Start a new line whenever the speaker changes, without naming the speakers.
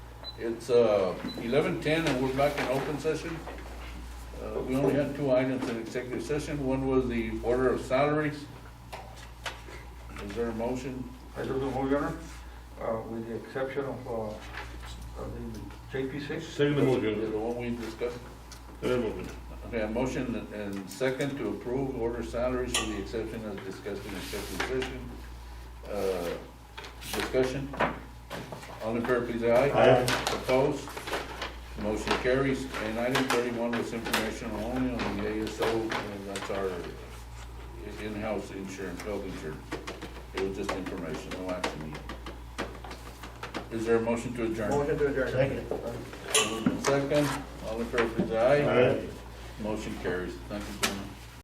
It's uh, eleven ten and we're back in open session. Uh, We only had two items in executive session. One was the order of salaries. Is there a motion?
I do move, Your Honor, uh, with the exception of, uh, of the JP six.
Second the motion,
The one we discussed?
third motion.
Okay, a motion and second to approve order salaries with the exception as discussed in executive session. Uh, Discussion? All in favor, please, say aye.
Aye.
Opposed? Motion carries. And item thirty-one was informational only on the ASO, and that's our in-house insurance, health insurance. It was just informational action needed. Is there a motion to adjourn?
Motion to adjourn.
Second.
Second, all in favor, please, say aye.
Aye.
Motion carries. Thank you, gentlemen.